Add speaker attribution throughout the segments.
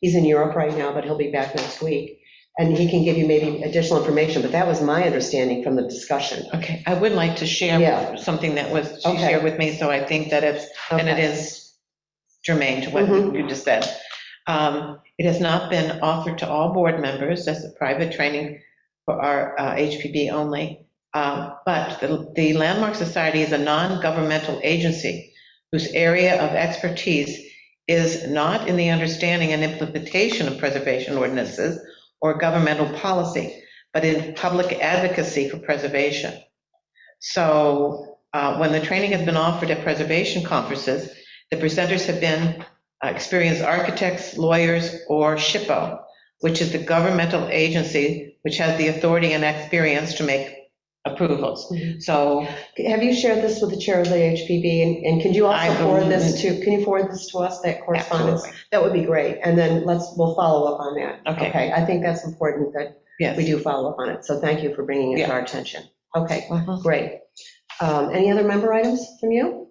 Speaker 1: he's in Europe right now, but he'll be back next week. And he can give you maybe additional information, but that was my understanding from the discussion.
Speaker 2: Okay, I would like to
Speaker 1: Yeah.
Speaker 2: share something that was, she
Speaker 1: Okay.
Speaker 2: shared with me, so I think that it's, and it is germane to what
Speaker 1: Mhm.
Speaker 2: you just said. Um, It has not been offered to all board members, that's a private training for our uh, HPB only. Uh, But the- the Landmark Society is a non-governmental agency whose area of expertise is not in the understanding and implementation of preservation ordinances or governmental policy, but in public advocacy for preservation. So uh, when the training has been offered at preservation conferences, the presenters have been uh, experienced architects, lawyers, or SHPO, which is the governmental agency which has the authority and experience to make approvals.
Speaker 1: Mhm.
Speaker 2: So
Speaker 1: Have you shared this with the chair of the HPB? And- And can you also
Speaker 2: I
Speaker 1: forward
Speaker 2: believe
Speaker 1: this to, can you forward this to us, that correspondence?
Speaker 2: absolutely,
Speaker 1: That would be great. And then let's, we'll follow up on that.
Speaker 2: Okay.
Speaker 1: I think that's important that we
Speaker 2: yes.
Speaker 1: do follow up on it. So thank you for bringing it to
Speaker 2: Yeah.
Speaker 1: our attention. Okay,
Speaker 2: Mhm.
Speaker 1: great. Um, Any other member items from you?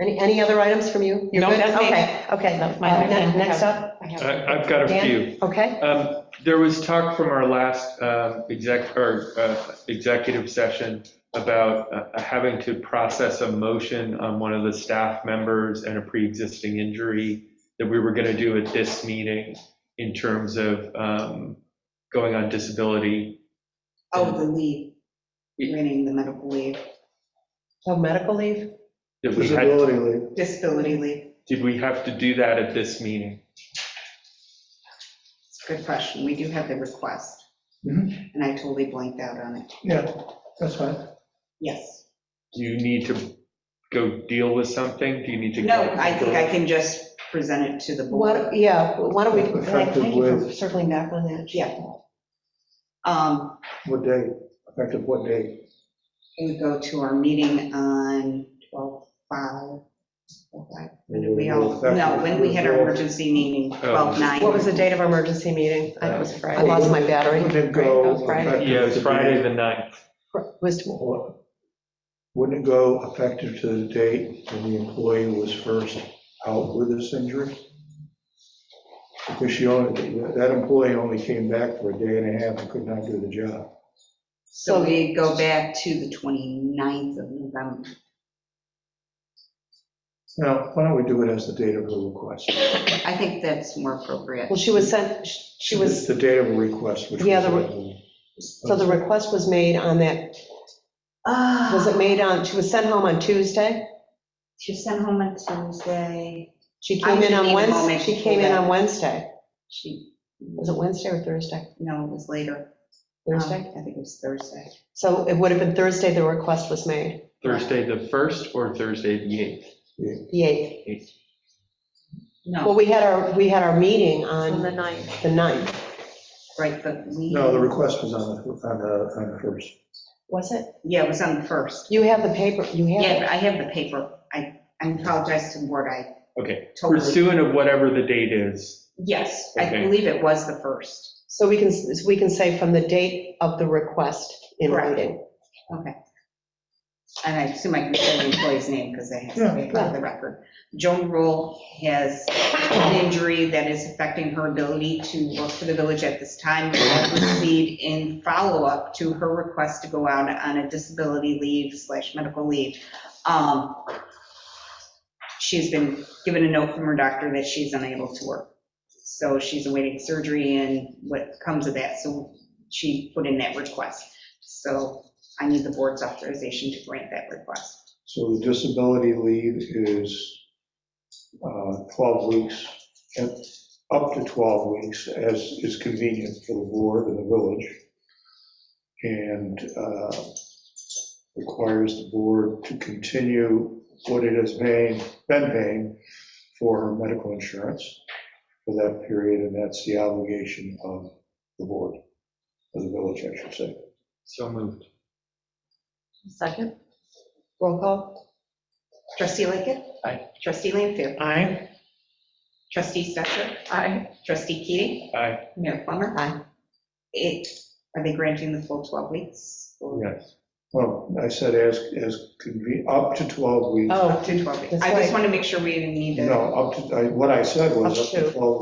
Speaker 1: Any, any other items from you? You're
Speaker 2: No,
Speaker 1: good?
Speaker 2: that's me.
Speaker 1: Okay, okay.
Speaker 2: That's my-
Speaker 1: Uh, ne- Next up,
Speaker 3: I- Uh, I've got a
Speaker 1: Dan?
Speaker 3: few.
Speaker 1: okay?
Speaker 3: Um, There was talk from our last um, exec, or uh, executive session about uh, having to process a motion on one of the staff members and a pre-existing injury that we were going to do at this meeting in terms of um, going on disability.
Speaker 4: Oh, the leave, renting the medical leave,
Speaker 1: Oh, medical leave?
Speaker 3: That we had,
Speaker 5: Disability leave.
Speaker 4: disability leave.
Speaker 3: did we have to do that at this meeting?
Speaker 4: It's a good question. We do have the request.
Speaker 3: Mm-hmm.
Speaker 5: Mhm.
Speaker 4: And I totally blanked out on it.
Speaker 5: Yeah, that's fine.
Speaker 4: Yes.
Speaker 3: Do you need to go deal with something? Do you need to?
Speaker 4: No, I think I can just present it to the board.
Speaker 1: What, yeah, why don't we, thank
Speaker 5: Effective
Speaker 1: you for
Speaker 5: with-
Speaker 1: circling back on that.
Speaker 4: Yeah. Um,
Speaker 5: What day? Effective what day?
Speaker 4: It would go to our meeting on 12/5. 12/5. When did We all, no, when we had our emergency meeting,
Speaker 3: Oh.
Speaker 4: 12/9.
Speaker 1: What was the date of our emergency meeting? I it was Friday. I lost my battery.
Speaker 5: Wouldn't it
Speaker 1: Great, that was
Speaker 5: Uh, go?
Speaker 1: Friday.
Speaker 3: Yeah, it was Friday the 9th.
Speaker 1: Was-
Speaker 5: Wouldn't it go effective to the date when the employee was first out with this injury? Because she only, that employee only came back for a day and a half and could not do the job.
Speaker 4: So we go back to the 29th of November.
Speaker 5: Now, why don't we do it as the date of the request?
Speaker 4: I think that's more appropriate.
Speaker 1: Well, she was sent, she was.
Speaker 5: The date of the request, which was.
Speaker 1: Yeah, the So the request was made on that,
Speaker 4: Ah.
Speaker 1: was it made on, she was sent home on Tuesday?
Speaker 4: She was sent home on Tuesday.
Speaker 1: She came in
Speaker 4: I need
Speaker 1: on
Speaker 4: a moment
Speaker 1: Wednesday,
Speaker 4: to
Speaker 1: she came in
Speaker 4: pull that.
Speaker 1: on Wednesday.
Speaker 4: She,
Speaker 1: Was it Wednesday or Thursday?
Speaker 4: no, it was later. Um,
Speaker 1: Thursday?
Speaker 4: I think it was Thursday.
Speaker 1: So it would have been Thursday the request was made,
Speaker 3: Thursday the 1st or Thursday the 8th?
Speaker 1: the 8th. Well,
Speaker 4: No,
Speaker 1: we had our, we had our meeting on
Speaker 6: On the
Speaker 1: the
Speaker 6: ninth.
Speaker 1: 9th.
Speaker 4: right, but we.
Speaker 5: No, the request was on the, on the, on the first.
Speaker 1: Was it?
Speaker 4: Yeah, it was on the first.
Speaker 1: You have the paper, you
Speaker 4: Yeah,
Speaker 1: have
Speaker 4: but
Speaker 1: it.
Speaker 4: I have the paper. I, I apologize to the board. I
Speaker 3: Okay,
Speaker 4: totally.
Speaker 3: pursuant of whatever the date is.
Speaker 4: Yes, I
Speaker 3: Okay.
Speaker 4: believe it was the first.
Speaker 1: So we can, s- we can say from the date of the request in
Speaker 4: Correct.
Speaker 1: writing.
Speaker 4: Okay. And I assume I can say the employee's name because they have to be
Speaker 1: Yeah, yeah.
Speaker 4: on the record. Joan Rule has an injury that is affecting her ability to work for the village at this time. Will Proceed in follow-up to her request to go out on a disability leave slash medical leave. Um, She's been given a note from her doctor that she's unable to work. So she's awaiting surgery and what comes of that. So she put in that request. So I need the board's authorization to grant that request.
Speaker 5: So the disability leave is uh, 12 weeks, and up to 12 weeks, as is convenient for the board and the village, and uh, requires the board to continue what it has paying- been paying for her medical insurance for that period, and that's the obligation of the board, of the village, I should say.
Speaker 3: So moved.
Speaker 6: Second?
Speaker 1: Roll call?
Speaker 4: Trustee Lickett?
Speaker 3: Aye.
Speaker 4: Trustee Lanfair?
Speaker 2: Aye.
Speaker 4: Trustee Stetser?
Speaker 6: Aye.
Speaker 4: Trustee Keating?
Speaker 3: Aye.
Speaker 4: Mayor Plummer?
Speaker 1: Aye.
Speaker 4: It, are they granting the full 12 weeks? or-
Speaker 3: Yes.
Speaker 5: Well, I said as, as convenient, up to 12 weeks.
Speaker 1: Oh,
Speaker 4: Up to 12 weeks.
Speaker 1: That's
Speaker 4: I just
Speaker 1: right.
Speaker 4: want to make sure we didn't need to.
Speaker 5: No, up to, I- what I said was
Speaker 1: Up
Speaker 5: up to
Speaker 1: to.
Speaker 5: 12